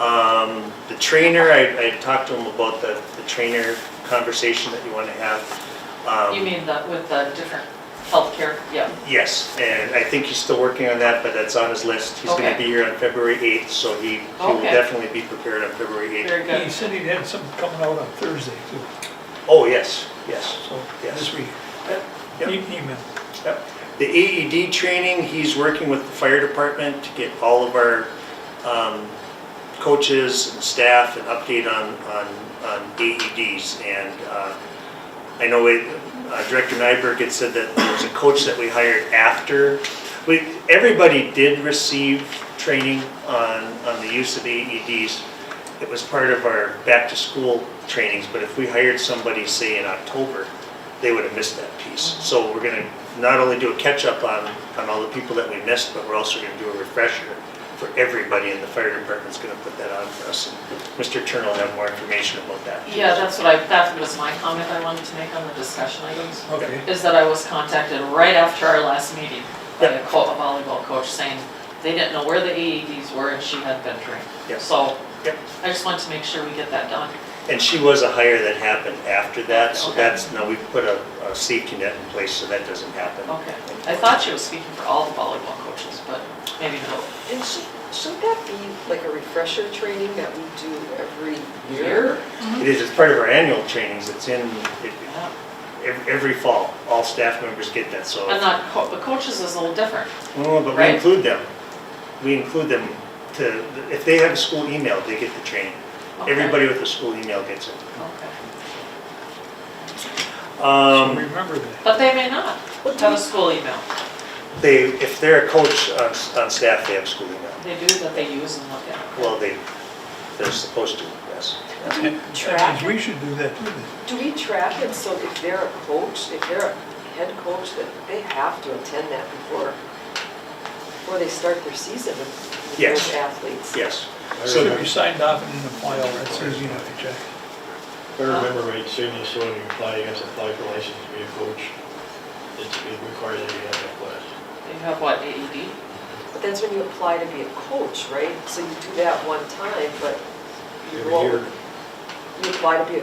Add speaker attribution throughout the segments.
Speaker 1: Um, the trainer, I, I talked to him about the, the trainer conversation that you wanna have. Um,
Speaker 2: You mean the, with the different healthcare, yeah.
Speaker 1: Yes, and I think he's still working on that, but that's on his list. He's gonna
Speaker 2: Okay.
Speaker 1: be here on February eighth, so he, he will
Speaker 2: Okay.
Speaker 1: definitely be prepared on February eighth.
Speaker 2: Very
Speaker 3: He
Speaker 2: good.
Speaker 3: said he'd had something coming out on Thursday too,
Speaker 1: Oh, yes, yes.
Speaker 3: so
Speaker 1: Yes.
Speaker 3: this week.
Speaker 1: Yep.
Speaker 3: E- Email.
Speaker 1: Yep. The AED training, he's working with the fire department to get all of our um, coaches and staff an update on, on, on AEDs. And uh, I know it- uh, Director Nyberg had said that there was a coach that we hired after. We, everybody did receive training on, on the use of AEDs. It was part of our back-to-school trainings, but if we hired somebody, say, in October, they would have missed that piece. So we're gonna not only do a catch-up on, on all the people that we missed, but we're also gonna do a refresher for everybody, and the fire department's gonna put that on for us. And Mr. Turner will have more information about that.
Speaker 2: Yeah, that's what I, that was my comment I wanted to make on the discussion items,
Speaker 3: Okay.
Speaker 2: is that I was contacted right after our last meeting by
Speaker 1: Yeah.
Speaker 2: a co- a volleyball coach saying they didn't know where the AEDs were and she had been trained.
Speaker 1: Yeah.
Speaker 2: So
Speaker 1: Yep.
Speaker 2: I just wanted to make sure we get that done.
Speaker 1: And she was a hire that happened after that, so
Speaker 2: Okay.
Speaker 1: that's, now we've put a, a safety net in place, so that doesn't happen.
Speaker 2: Okay. I thought she was speaking for all the volleyball coaches, but maybe not.
Speaker 4: And should, should that be like a refresher training that we do every year?
Speaker 2: Here.
Speaker 1: It is, it's part of our annual trainings, it's in, it,
Speaker 2: Yeah.
Speaker 1: ev- every fall, all staff members get that, so.
Speaker 2: And not, co- the coaches is a little different.
Speaker 1: No, but we
Speaker 2: Right.
Speaker 1: include them. We include them to, if they have a school email, they get the training.
Speaker 2: Okay.
Speaker 1: Everybody with a school email gets it.
Speaker 2: Okay.
Speaker 3: So
Speaker 1: Um,
Speaker 3: remember that.
Speaker 2: But they may not
Speaker 4: Well, do
Speaker 2: have a
Speaker 4: we-
Speaker 2: school email.
Speaker 1: they, if they're a coach on, on staff, they have school email.
Speaker 2: They do that they use and look at.
Speaker 1: Well, they, they're supposed to, yes.
Speaker 4: Do we
Speaker 3: That means
Speaker 4: track it?
Speaker 3: we should do that too then.
Speaker 4: Do we track it so if they're a coach, if they're a head coach, that they have to attend that before, before they start their season with with
Speaker 1: Yes.
Speaker 4: those athletes?
Speaker 1: Yes. So,
Speaker 3: So if you signed off and didn't apply, all that's easy enough to check.
Speaker 5: If I remember right, certainly so when you apply, you have to apply for license to be a coach. It's it requires that you have that class.
Speaker 2: They have what, E AED?
Speaker 4: But that's when you apply to be a coach, right? So you do that one time, but you
Speaker 5: Every
Speaker 4: roll,
Speaker 5: year,
Speaker 4: you apply to be a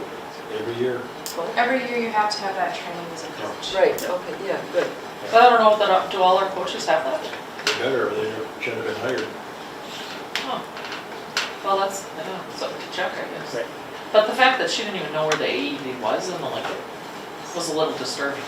Speaker 5: every year.
Speaker 4: coach?
Speaker 6: Every year you have to have that training as a coach.
Speaker 4: Right, okay, yeah, good.
Speaker 2: But I don't know, if that, do all our coaches have that?
Speaker 5: They better, or they should have been hired.
Speaker 2: Huh. Well, that's, I don't know, something to check, I guess.
Speaker 1: Right.
Speaker 2: But the fact that she didn't even know where the AED was in the liquor was a little disturbing.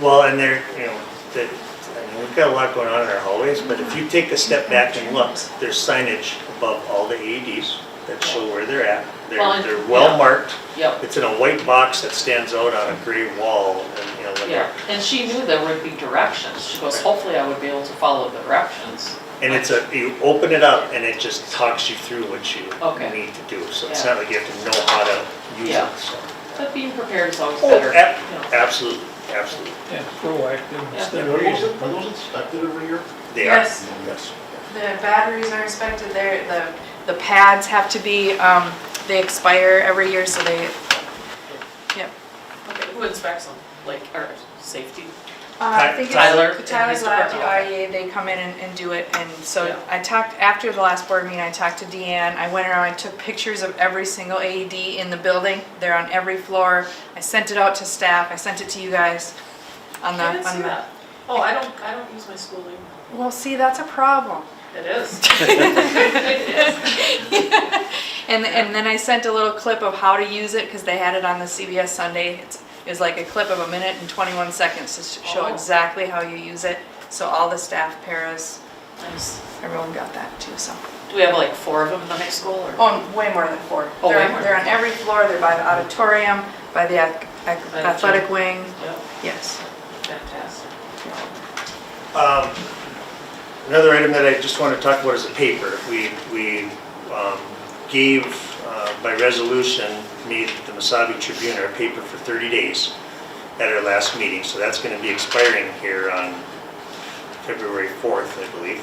Speaker 1: well, and they're, you know, the, I mean, we've got a lot going on in our hallways, but if you take a step back and look, there's signage above all the AEDs that show where they're at.
Speaker 2: Well,
Speaker 1: They're,
Speaker 2: and-
Speaker 1: they're well
Speaker 2: yeah.
Speaker 1: marked.
Speaker 2: Yep,
Speaker 1: It's in a white box that stands out on a gray wall and, you know, like.
Speaker 2: yeah. And she knew there would be directions. She goes, hopefully I would be able to follow the directions.
Speaker 1: And it's a, you open it up and it just talks you through what you
Speaker 2: Okay.
Speaker 1: need to do. So it's not like you have to know how to use
Speaker 2: Yeah.
Speaker 1: it, so.
Speaker 2: But being prepared is always
Speaker 1: Oh,
Speaker 2: better.
Speaker 1: ab-
Speaker 2: you know.
Speaker 1: Absolutely, absolutely.
Speaker 3: Yeah, proactive instead
Speaker 5: Are
Speaker 3: of reason.
Speaker 5: those- are those inspected every year?
Speaker 1: They are.
Speaker 6: Yes.
Speaker 1: Yes.
Speaker 6: The batteries are inspected there, the, the pads have to be, um, they expire every year, so they, yep.
Speaker 2: Okay, Who inspects them? Like, our safety?
Speaker 6: Uh, I think it's
Speaker 2: Tyler and
Speaker 6: Tyler's
Speaker 2: his
Speaker 6: lab,
Speaker 2: department.
Speaker 6: IEA, they come in and, and do it, and
Speaker 2: Yeah.
Speaker 6: so I talked, after the last board meeting, I talked to Deanne, I went around, I took pictures of every single AED in the building, they're on every floor, I sent it out to staff, I sent it to you guys on the,
Speaker 2: I didn't see
Speaker 6: on the.
Speaker 2: that. Oh, I don't, I don't use my school email.
Speaker 6: Well, see, that's a problem.
Speaker 2: It is.
Speaker 6: And, and then I sent a little clip of how to use it, because they had it on the CBS Sunday. It's- It was like a clip of a minute and 21 seconds to sh- show
Speaker 2: Oh.
Speaker 6: exactly how you use it. So all the staff, paras,
Speaker 2: Nice.
Speaker 6: everyone got that too, so.
Speaker 2: Do we have like four of them in the high school or?
Speaker 6: Oh, and way more than four.
Speaker 2: Oh, way
Speaker 6: They're
Speaker 2: more
Speaker 6: on- they're
Speaker 2: than
Speaker 6: on every floor, they're by the auditorium, by the ath- ath-
Speaker 2: By the
Speaker 6: athletic
Speaker 2: gym.
Speaker 6: wing.
Speaker 2: Yeah,
Speaker 6: Yes.
Speaker 2: fantastic.
Speaker 1: Um, Another item that I just want to talk about is the paper. We, we um, gave uh, by resolution, made the Masabi Tribune our paper for 30 days at our last meeting, so that's going to be expiring here on February 4th, I believe.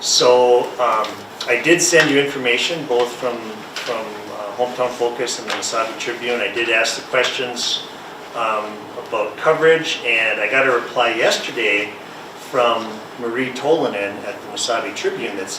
Speaker 1: So um, I did send you information, both from, from uh, Hometown Focus and the Masabi Tribune. I did ask the questions um, about coverage, and I got a reply yesterday from Marie Tolanen at the Masabi Tribune that said